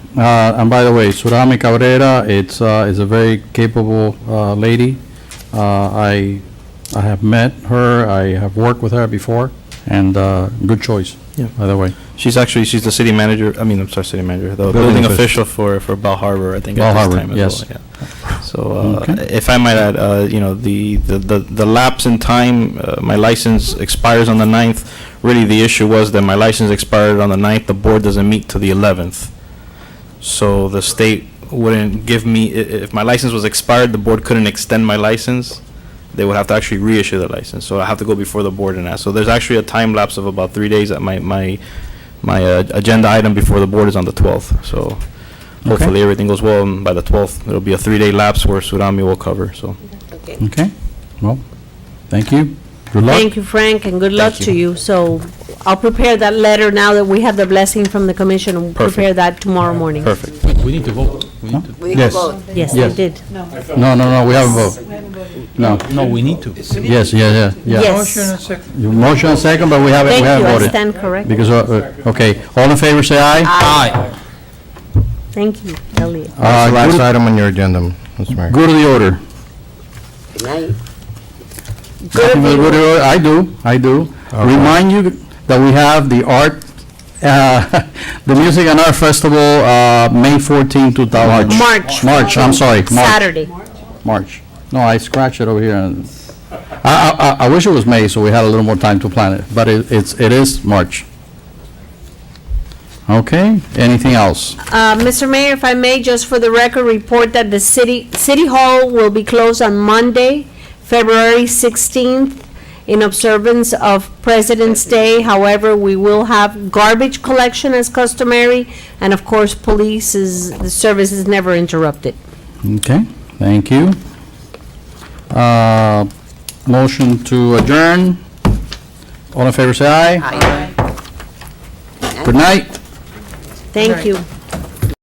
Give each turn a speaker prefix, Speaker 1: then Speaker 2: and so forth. Speaker 1: Uh, And by the way, Surami Cabrera, it's, uh, is a very capable uh, lady. Uh, I, I have met her, I have worked with her before, and uh, good choice,
Speaker 2: Yeah.
Speaker 1: by the way.
Speaker 2: She's actually, she's the city manager, I mean, I'm sorry, city manager, the
Speaker 1: Building
Speaker 2: building
Speaker 1: official.
Speaker 2: official for, for Bell Harbor, I think,
Speaker 1: Bell
Speaker 2: at this
Speaker 1: Harbor,
Speaker 2: time
Speaker 1: yes.
Speaker 2: as well. yeah. So, uh,
Speaker 1: Okay.
Speaker 2: if I might add, uh, you know, the, the- the the lapse in time, uh, my license expires on the 9th. Really, the issue was that my license expired on the 9th, the board doesn't meet till the 11th. So the state wouldn't give me, i- i- if my license was expired, the board couldn't extend my license. They would have to actually reissue the license, so I have to go before the board and ask. So there's actually a time lapse of about three days that my, my, my uh, agenda item before the board is on the 12th, so hopefully everything goes well, and by the 12th, it'll be a three-day lapse where Surami will cover, so.
Speaker 3: Okay.
Speaker 1: Okay, well, thank you. Good luck.
Speaker 3: Thank you, Frank, and good luck to you. So I'll prepare that letter now that we have the blessing from the commission. and Prepare that tomorrow morning.
Speaker 2: Perfect.
Speaker 4: We need to vote. We need to,
Speaker 5: We
Speaker 1: Yes.
Speaker 5: vote.
Speaker 3: Yes, I
Speaker 1: Yes.
Speaker 3: did.
Speaker 1: No, no, no, we have a vote. No,
Speaker 4: no, we need to.
Speaker 1: yes, yeah, yeah, yeah.
Speaker 3: Yes.
Speaker 1: Your Motion and second, but we haven't, we
Speaker 3: Thank you,
Speaker 1: haven't
Speaker 3: I
Speaker 1: voted.
Speaker 3: stand corrected.
Speaker 1: Because, uh, uh, okay, all in favor, say aye.
Speaker 4: Aye.
Speaker 3: Thank you, Elliot.
Speaker 1: Uh,
Speaker 6: That's the last
Speaker 1: go to-
Speaker 6: item on your agenda, Mr. Mayor.
Speaker 1: Go to the order.
Speaker 5: Good night.
Speaker 1: Nothing but Good order. I do, I do. Remind you that we have the art, uh, the Music and Art Festival, uh, May 14, 2000.
Speaker 3: March.
Speaker 1: March, I'm sorry, March,
Speaker 3: Saturday.
Speaker 1: March. No, I scratched it over here. and- I, I- I, I wish it was May, so we had a little more time to plan it, but it, it's, it is March. Okay, anything else?
Speaker 3: Uh, Mr. Mayor, if I may, just for the record, report that the city, City Hall will be closed on Monday, February 16th, in observance of President's Day. However, we will have garbage collection as customary, and of course, police is, the service is never interrupted.
Speaker 1: Okay, thank you. Uh, Motion to adjourn. All in favor, say aye. Good night.
Speaker 3: Thank you.